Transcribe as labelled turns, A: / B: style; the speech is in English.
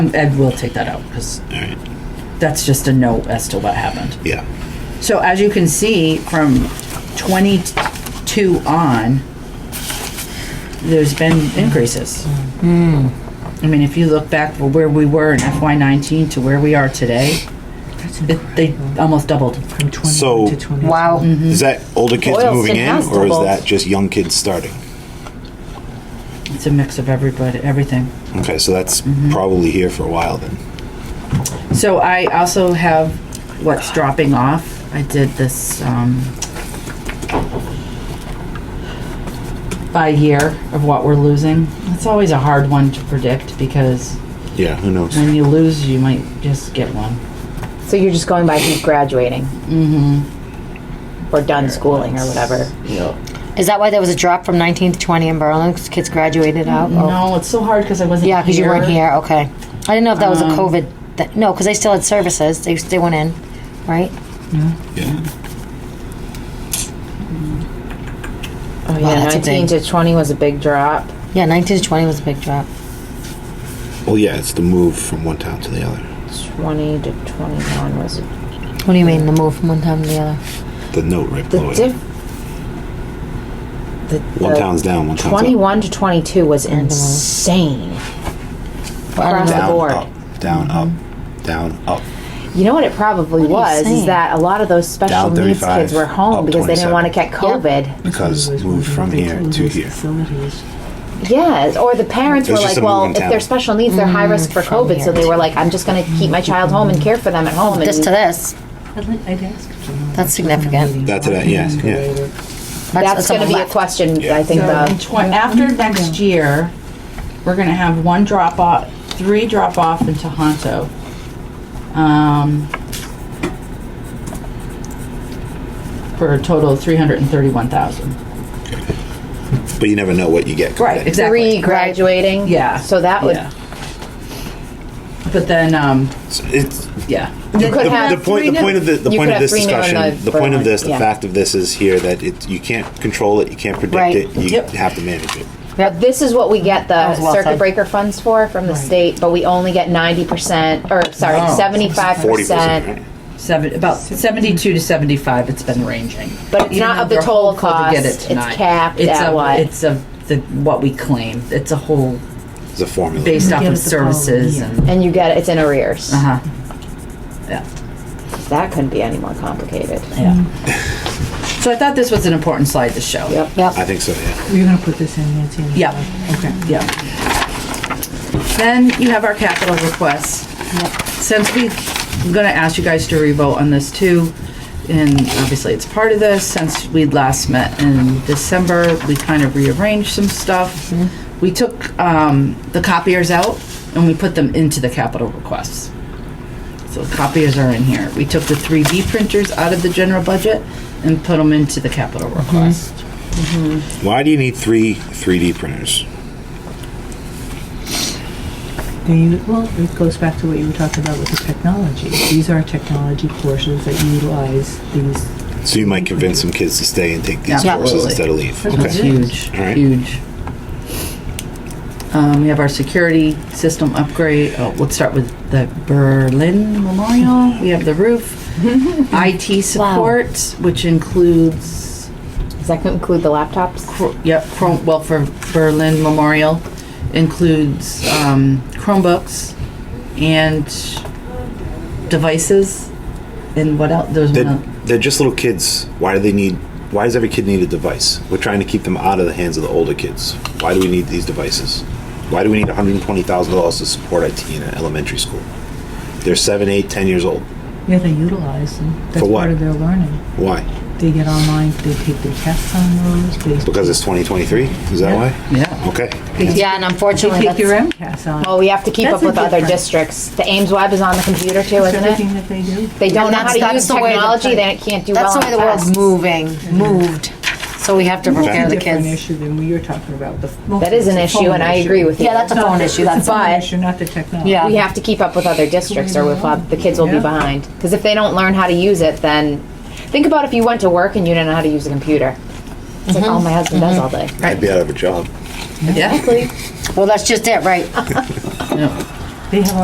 A: Ed will take that out because that's just a note as to what happened.
B: Yeah.
A: So as you can see, from twenty-two on, there's been increases. I mean, if you look back from where we were in FY nineteen to where we are today, it- they almost doubled.
C: From 20
B: So-
C: to 20.
D: Wow.
B: Is that older kids
D: Boylston
B: moving in,
D: has
B: or is
D: doubled.
B: that just young kids starting?
A: It's a mix of everybody, everything.
B: Okay, so that's probably here for a while then.
A: So I also have what's dropping off. I did this, um, by year of what we're losing. It's always a hard one to predict because
B: Yeah, who knows?
A: when you lose, you might just get one.
D: So you're just going by who's graduating? Mm-hmm. Or done schooling or whatever.
E: Is that why there was a drop from 19 to 20 in Berlin? 'Cause kids graduated out? Oh.
A: Mm-hmm. No, it's so hard because I wasn't
E: Yeah, because you weren't here. Okay. I didn't know if that was a COVID. Th- no, because they still had services. They, they went in, right?
B: Yeah.
D: Oh,
E: Wow,
D: yeah,
E: that's a
D: 19 to 20 was a big drop.
E: Yeah, 19 to 20 was a big drop.
B: Well, yeah, it's the move from one town to the other.
D: 20 to 21 was a
E: What do you mean, the move from one time to the other?
B: The note right
D: The
B: below
D: diff.
B: it.
D: The,
B: One
D: the
B: town's down, one town's up.
D: 21 to 22 was insane.
E: Well, I
D: Across
E: don't know.
D: the
B: Down,
D: board.
B: up, down, up, down, up.
D: You know what it probably
E: What are you
D: was is
E: saying?
D: that a lot of those special
B: Down
D: needs
B: 35,
D: kids were home
B: up
D: because they didn't
B: 27.
D: want to get COVID.
B: Because
C: Otherwise,
B: moved
C: we'd
B: from
C: be
B: here
C: closing
B: to
C: those
B: here.
C: Facilities.
D: Yes, or the parents
B: It
D: were
B: was
D: like,
B: just a
D: well,
B: moving
D: if
B: town.
D: they're special needs, they're high risk for
E: from
D: COVID. So
E: here.
D: they were like, I'm just going to keep my child home and care for them at home. And
E: This to this.
C: I'd like, I'd ask. if you know,
E: That's significant.
B: That to that, yeah, yeah.
D: that's going to
E: someone
D: be a
E: left.
D: question,
B: Yeah.
D: I think,
A: So in
D: of.
A: tw- after
D: Mm-hmm.
A: next year, we're gonna have one drop off, three drop off in Tohoto. Um, for a total of three hundred and thirty-one thousand.
B: But you never know what you get.
A: Right,
D: Three
A: exactly.
D: graduating.
A: Yeah.
D: So that would.
A: Yeah. But then, um,
B: So It's,
A: yeah.
D: You could
B: the,
D: have
B: the point, the
D: three
B: point of the, the
D: You
B: point
D: could
B: of
D: have
B: this
D: three new and
B: discussion, the
D: a
B: point of
D: burnt one,
B: this, the
D: yeah.
B: fact of this is here that it, you can't control it, you can't predict
E: Right.
B: it, you
A: Yep.
B: have to manage it.
D: But this is what we get the
E: was well
D: circuit
E: said.
D: breaker funds for from the state, but we only get ninety percent, or sorry,
A: No.
D: seventy-five
B: Forty percent,
D: percent.
B: right?
A: Seven, about seventy-two to seventy-five, it's been ranging.
D: But it's
A: Even
D: not
A: though
D: of the
A: we're
D: total
A: hopeful to get
D: cost.
A: it
D: It's
A: tonight.
D: capped
A: It's
D: at
A: of-
D: what?
A: It's of the, what we claim, it's a whole,
B: It's a formula.
A: based off
C: Yeah,
A: of
C: it's a problem,
A: services
C: yeah.
A: and,
D: And you get, it's in arrears.
A: uh-huh. Yeah,
D: That couldn't be any more complicated.
A: yeah. So I thought this was an important slide to show.
D: Yep.
B: I think so, yeah.
C: You're going to put this in, Nancy? in the
A: Yeah.
C: file? Okay.
A: Yeah. Then you have our capital requests. Since we, I'm gonna ask you guys to revote on this too, and obviously it's part of this, since we last met in December, we kind of rearranged some stuff. We took, um, the copiers out and we put them into the capital requests. So copiers are in here. We took the three D printers out of the general budget and put them into the capital request.
B: Why do you need three 3D printers?
C: They u- well, it goes back to what you were talking about with the technology. These are technology courses that utilize these.
B: So you might convince some kids to stay and take these
A: Yeah.
B: courses
A: Absolutely.
B: instead of leave.
A: It's
B: Okay.
A: huge,
B: All right.
A: huge. Um, we have our security system upgrade. Oh, let's start with the Berlin Memorial. We have the roof. IT support, which includes,
D: Does that include the laptops?
A: Chr- yep, Chrome, well, for Berlin Memorial, includes, um, Chromebooks and devices. And what else? There's
B: They're,
A: one.
B: they're just little kids. Why do they need? Why does every kid need a device? We're trying to keep them out of the hands of the older kids. Why do we need these devices? Why do we need $120,000 to support IT in an elementary school? They're seven, eight, ten years old.
C: Yeah, they utilize them. That's
B: For what?
C: part of their learning.
B: Why?
C: They get online. They take their tests on those. They
B: Because it's 2023. Is that why?
A: Yeah.
B: Okay.
E: Yeah, and unfortunately,
C: take
E: that's,
C: your MCAS on.
D: Well, we have to keep
C: That's
D: up with
C: a
D: other
C: different-
D: districts. The Ames Web is on the computer too,
C: It's
D: isn't
C: everything
D: it?
C: that they do.
D: They don't
E: And
D: know how
E: that's-
D: to
E: that's
D: use
E: the way the-
D: technology, they can't do well
E: that's the way
D: on
E: the world's
D: tests.
E: moving, moved. So we have to prepare the
C: Different
E: kids.
C: issue than we are talking about. The
D: That is an issue, and I agree with you.
E: Yeah, that's a phone issue. That's
C: It's a phone
D: But-
C: issue, not the technology.
E: Yeah.
D: we have to keep up with other districts or with, uh, the kids will be
C: Yeah.
D: behind. Because if they don't learn how to use it, then, think about if you went to work and you didn't know how to use a computer. It's
E: Mm-hmm.
D: like, oh, my husband does all day.
B: I'd be out of a job.
A: Yeah.
E: Well, that's just it, right?
C: They have